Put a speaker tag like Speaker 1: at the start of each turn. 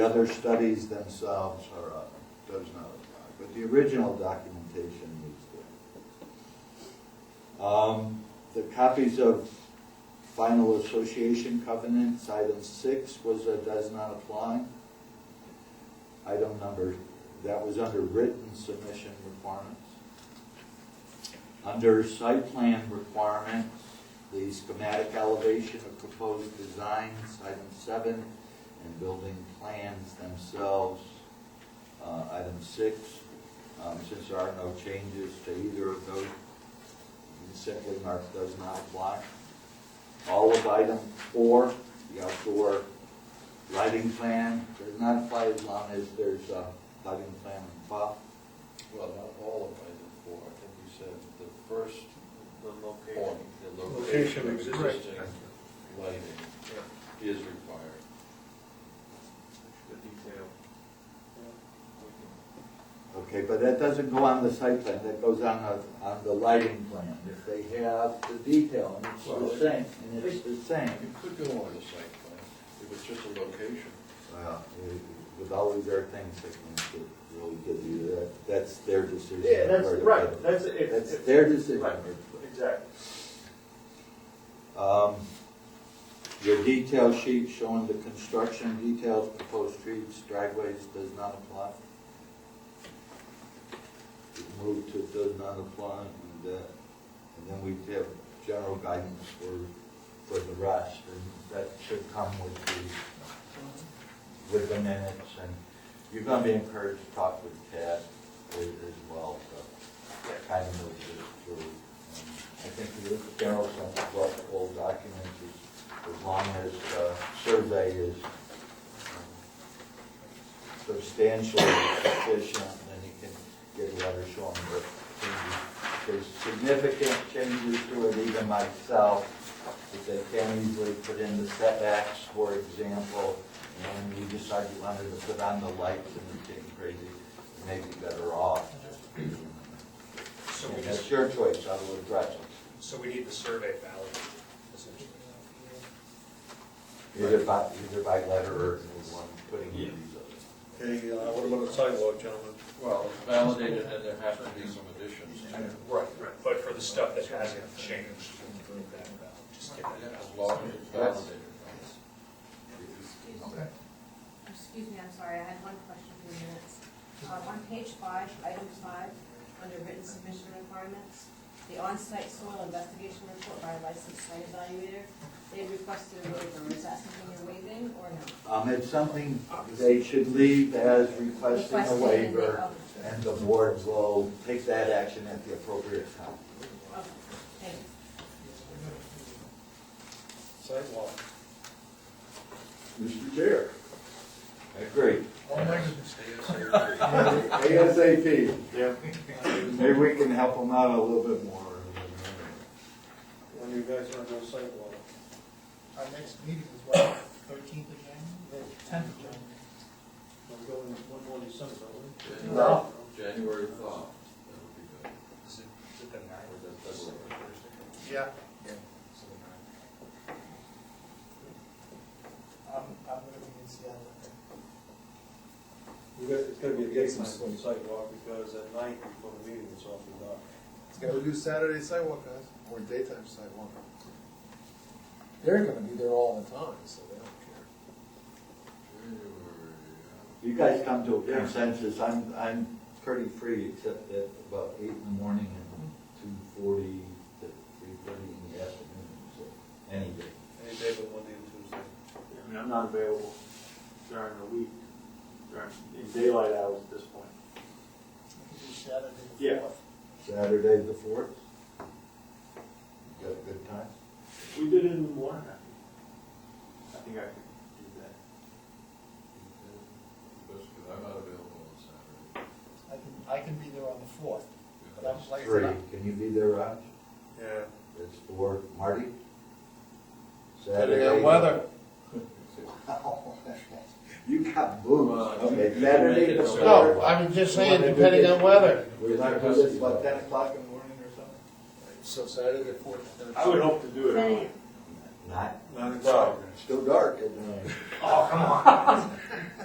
Speaker 1: The other studies themselves are, uh, does not apply, but the original documentation is there. Um, The copies of final association covenants, item six was a does not apply. Item number, that was under written submission requirements. Under site plan requirements, the schematic elevation of proposed designs, item seven, and building plans themselves, uh, item six. Um, Since there are no changes to either of those, you simply mark does not apply. All of item four, the outdoor lighting plan, does not apply as long as there's a lighting plan on file.
Speaker 2: Well, not all of item four, I think you said the first. The location. The location
Speaker 3: Location
Speaker 2: of
Speaker 3: exists.
Speaker 2: existing lighting is required.
Speaker 4: the detail. We
Speaker 1: Okay, but that doesn't go on the site plan, that goes on the, on the lighting plan. If they have the detail, and it's the same, and it's the same.
Speaker 2: It could go on the site plan, if it's just a location.
Speaker 1: Well, it- With all these other things that can get- really give you that, that's their decision.
Speaker 4: can- Yeah, that's,
Speaker 1: where to put
Speaker 4: right,
Speaker 1: it.
Speaker 4: that's, if,
Speaker 1: That's
Speaker 4: if,
Speaker 1: their decision.
Speaker 4: right, exactly.
Speaker 1: Um, Your detail sheet showing the construction details, proposed streets, driveways, does not apply. Move to does not apply, and, uh, and then we have general guidance for, for the rest, and that should come with the, with the minutes, and you're gonna be encouraged to talk with Ted as, as well, so, kind of move this through. And I think the general sense of what the whole document is, as long as the survey is um, substantially sufficient, then you can get a letter showing the changes. There's significant changes to it, even myself, that they can easily put in the setbacks, for example, and you decide you wanted to put on the lights and it's getting crazy, you may be better off.
Speaker 5: So we
Speaker 1: And that's
Speaker 5: just,
Speaker 1: your choice, I will address it.
Speaker 5: so we need the survey valid, essentially.
Speaker 1: Either by, either by letter or one putting in these others.
Speaker 3: Okay, uh, what about a sidewalk, gentlemen?
Speaker 2: Well. Validated, and there have to be some additions to it.
Speaker 5: Right, right. But for the stuff that hasn't changed, we can get that valid, just get that
Speaker 2: As long
Speaker 5: valid.
Speaker 2: as it's validated.
Speaker 6: Excuse me. Excuse me, I'm sorry, I had one question for the minutes. Uh, On page five, item five, under written submission requirements, the on-site soil investigation report by a licensed site evaluator, they requested a waiver, is that something you're waiving or no?
Speaker 1: Um, it's something they should leave as requesting a
Speaker 6: Requested and they-
Speaker 1: waiver,
Speaker 6: oh,
Speaker 1: and the board will take that action at the appropriate time.
Speaker 6: Okay, thanks.
Speaker 3: Sidewalk.
Speaker 1: Mr. Chair. Agreed.
Speaker 2: Stay
Speaker 1: ASAP.
Speaker 3: Yeah.
Speaker 1: Maybe we can help them out a little bit more.
Speaker 3: When you guys are on sidewalk.
Speaker 7: Our next meeting is what, thirteenth of January, tenth of January?
Speaker 3: I'm going one more December, aren't
Speaker 2: as-
Speaker 1: No.
Speaker 2: January thaw, that would be good.
Speaker 5: Is it, is it the nine?
Speaker 2: Or that- that's like a Thursday.
Speaker 7: Yeah.
Speaker 5: So the nine.
Speaker 7: I'm, I'm gonna be in Seattle. I think.
Speaker 3: we? You guys, it's gonna be a gate night on sidewalk, because at night before the meeting, it's awful dark.
Speaker 7: It's gonna do Saturday sidewalk, guys, or daytime sidewalk. They're gonna be there all the time, so they don't
Speaker 2: January,
Speaker 1: You guys come to a consensus, I'm, I'm pretty free except at about eight in the morning and two forty to three thirty in the afternoon, so any day.
Speaker 3: Any day but Monday and Tuesday.
Speaker 8: I mean, I'm not available during the week, during, in daylight hours at this point.
Speaker 7: care.
Speaker 8: Yeah.
Speaker 1: Saturday the fourth? You got a good time?
Speaker 8: We did it in the morning, I think. I think I could do that.
Speaker 2: that's good. I'm not available on Saturday.
Speaker 7: I can, I can be there on the fourth, but I'm like.
Speaker 1: Three, can you be there, Raj?
Speaker 3: Yeah.
Speaker 1: It's for Marty?
Speaker 7: Depending on
Speaker 1: Saturday.
Speaker 7: weather.
Speaker 1: You got boots.
Speaker 2: Well,
Speaker 1: Okay,
Speaker 2: you
Speaker 1: Saturday
Speaker 2: make
Speaker 1: the
Speaker 2: it
Speaker 1: fourth.
Speaker 2: No,
Speaker 7: I'm just
Speaker 1: saying, depending on
Speaker 7: weather.
Speaker 1: We're not gonna do this, what, ten o'clock?
Speaker 7: in the morning or something? So Saturday the fourth.
Speaker 8: I would hope to do it. early.
Speaker 1: Not,
Speaker 3: Nine
Speaker 1: well, it's still dark, isn't it?